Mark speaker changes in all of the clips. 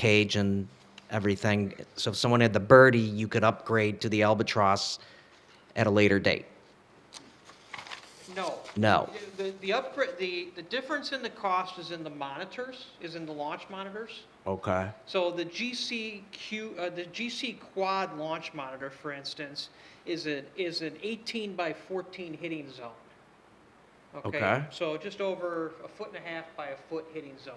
Speaker 1: cage and everything. So if someone had the birdie, you could upgrade to the albatross at a later date.
Speaker 2: No.
Speaker 1: No.
Speaker 2: The, the upgrade, the, the difference in the cost is in the monitors, is in the launch monitors.
Speaker 1: Okay.
Speaker 2: So the GCQ, uh, the GC Quad launch monitor, for instance, is an, is an 18 by 14 hitting zone.
Speaker 1: Okay.
Speaker 2: So just over a foot and a half by a foot hitting zone.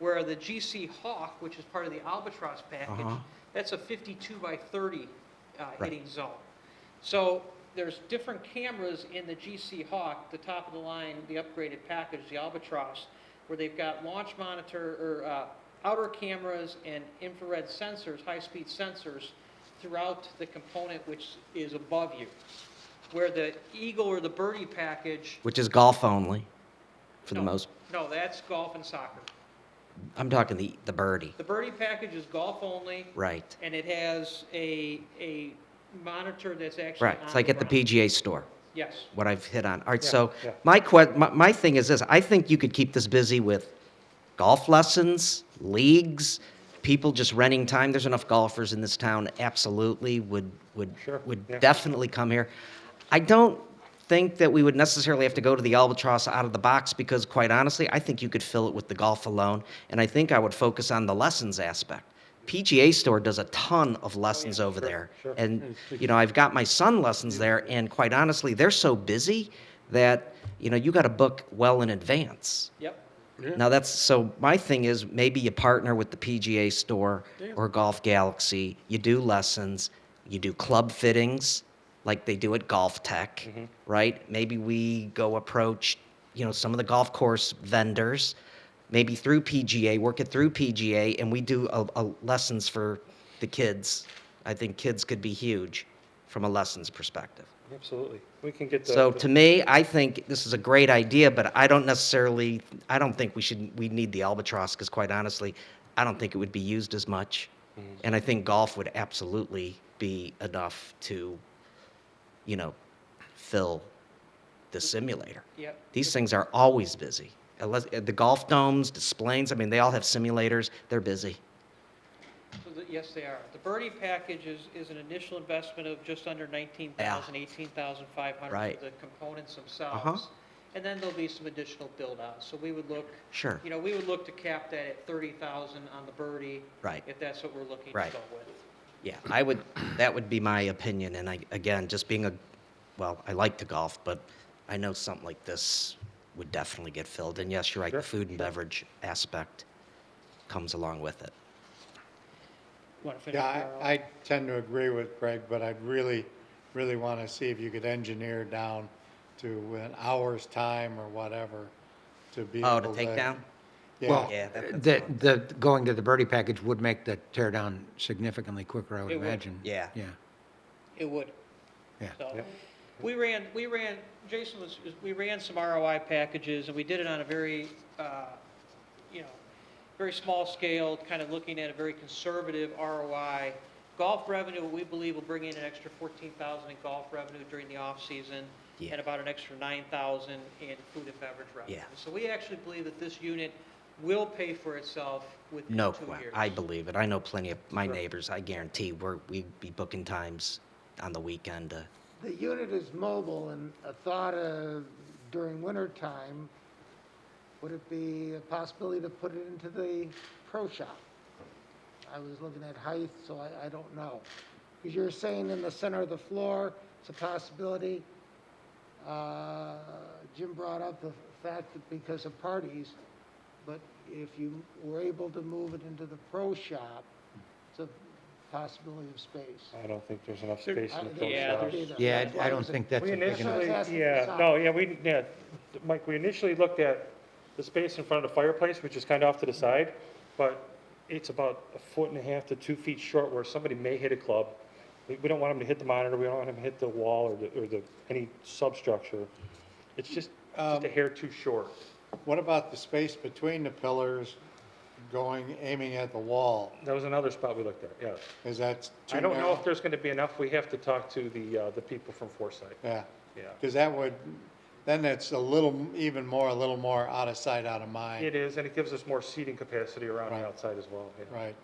Speaker 2: Where the GC Hawk, which is part of the Albatross
Speaker 1: Uh-huh.
Speaker 2: package, that's a 52 by 30 uh,
Speaker 1: Right.
Speaker 2: hitting zone. So there's different cameras in the GC Hawk, the top of the line, the upgraded package, the Albatross, where they've got launch monitor or uh, outer cameras and infrared sensors, high-speed sensors throughout the component which is above you. Where the Eagle or the Birdie package.
Speaker 1: Which is golf only, for the
Speaker 2: no,
Speaker 1: most.
Speaker 2: No, that's golf and soccer.
Speaker 1: I'm talking the the birdie,
Speaker 2: The Birdie package is golf only.
Speaker 1: right?
Speaker 2: And it has a, a monitor that's actually.
Speaker 1: Right. It's
Speaker 2: on
Speaker 1: like at the
Speaker 2: ground.
Speaker 1: PGA store.
Speaker 2: Yes.
Speaker 1: what I've hit on. All right,
Speaker 3: Yeah,
Speaker 1: so
Speaker 3: yeah.
Speaker 1: my que, my, my thing is this, I think you could keep this busy with golf lessons, leagues, people just renting time. There's enough golfers in this town, absolutely, would, would,
Speaker 3: Sure, yeah.
Speaker 1: would definitely come here. I don't think that we would necessarily have to go to the albatross out of the box because quite honestly, I think you could fill it with the golf alone. And I think I would focus on the lessons aspect. PGA store does a ton of lessons over
Speaker 3: Oh, sure,
Speaker 1: there.
Speaker 3: sure.
Speaker 1: And,
Speaker 3: And it's-
Speaker 1: you know, I've got my son lessons there, and quite honestly, they're so busy that, you know, you got to book well in advance.
Speaker 2: Yep.
Speaker 3: Yeah.
Speaker 1: Now, that's so my thing is maybe you partner with the PGA store
Speaker 3: Yeah.
Speaker 1: or Golf Galaxy, you do lessons, you do club fittings like they do at Golf Tech, right? Maybe we go approach, you know, some of the golf course vendors, maybe through PGA, work it through PGA, and we do a, a lessons for the kids. I think kids could be huge from a lessons perspective.
Speaker 3: Absolutely. We can get the.
Speaker 1: So
Speaker 3: the-
Speaker 1: to me, I think this is a great idea, but I don't necessarily, I don't think we should, we need the albatross, because quite honestly, I don't think it would be used as much. And I think golf would absolutely be enough to, you know, fill the simulator.
Speaker 2: Yep.
Speaker 1: These things are always busy. Unless, uh, the golf domes, displays, I mean, they all have simulators, they're busy.
Speaker 2: So the- Yes, they are. The Birdie package is, is an initial investment of just under 19,000, 18,500
Speaker 1: Right.
Speaker 2: for the components
Speaker 4: Uh-huh.
Speaker 2: themselves. And then there'll be some additional build-outs. So we would look,
Speaker 1: Sure,
Speaker 2: you know, we would look to cap that at 30,000 on the Birdie,
Speaker 1: right.
Speaker 2: if that's what we're looking to
Speaker 1: Right.
Speaker 2: go with.
Speaker 1: Yeah, I would, that would be my opinion, and I, again, just being a, well, I like to golf, but I know something like this would definitely get filled, and yes, you're right, the
Speaker 3: Sure,
Speaker 1: food and beverage aspect comes along with it.
Speaker 2: Want to finish?
Speaker 4: Yeah,
Speaker 2: Darrell?
Speaker 4: I, I tend to agree with Greg, but I'd really, really want to see if you could engineer down to an hour's time or whatever to be
Speaker 1: Oh,
Speaker 4: able to.
Speaker 1: to take down?
Speaker 4: Yeah,
Speaker 1: Yeah, that- that's
Speaker 5: The, the, going to the birdie package would make the tear down significantly quicker, I would
Speaker 2: It would.
Speaker 5: imagine.
Speaker 1: Yeah.
Speaker 5: Yeah,
Speaker 2: It would.
Speaker 5: yeah.
Speaker 2: So,
Speaker 3: Yeah.
Speaker 2: we ran, we ran, Jason was, is- we ran some ROI packages, and we did it on a very, uh, you know, very small scale, kind of looking at a very conservative ROI. Golf revenue, we believe will bring in an extra 14,000 in golf revenue during the off-season,
Speaker 1: Yeah.
Speaker 2: and about an extra 9,000 in food and beverage revenue.
Speaker 1: Yeah.
Speaker 2: So we actually believe that this unit will pay for itself within
Speaker 1: No,
Speaker 2: two
Speaker 1: que-
Speaker 2: years.
Speaker 1: I believe it, I know plenty of my neighbors, I guarantee, we're, we'd be booking times on the weekend, uh,
Speaker 6: The unit is mobile, and a thought of during winter time, would it be a possibility to put it into the pro shop? I was looking at height, so I, I don't know. Because you're saying in the center of the floor, it's a possibility. Uh, Jim brought up the fact that because of parties, but if you were able to move it into the pro shop, it's a possibility of space.
Speaker 3: I don't think there's enough space in the pro
Speaker 2: Yeah,
Speaker 3: shop.
Speaker 2: there's-
Speaker 5: Uh, Yeah, I- I don't think that's
Speaker 3: We
Speaker 5: a big enough.
Speaker 3: initially,
Speaker 6: Asking
Speaker 3: yeah,
Speaker 6: for
Speaker 3: no, yeah, we, yeah, Mike, we initially looked at the space in front of the fireplace, which is kind of off to the side, but it's about a foot and a half to two feet short where somebody may hit a club. We, we don't want them to hit the monitor, we don't want them to hit the wall or the, or the, any substructure. It's just, just a
Speaker 5: Um,
Speaker 3: hair too short.
Speaker 4: What about the space between the pillars going, aiming at the wall?
Speaker 3: That was another spot we looked at, yeah.
Speaker 4: Is that too
Speaker 3: I don't know
Speaker 4: narrow?
Speaker 3: if there's going to be enough, we have to talk to the, uh, the people from Foresight,
Speaker 4: Yeah,
Speaker 3: yeah.
Speaker 4: because that would, then that's a little, even more, a little more out of sight, out of mind.
Speaker 3: It is, and it gives us more seating capacity around the
Speaker 4: Right.
Speaker 3: outside as well, yeah.
Speaker 4: Right,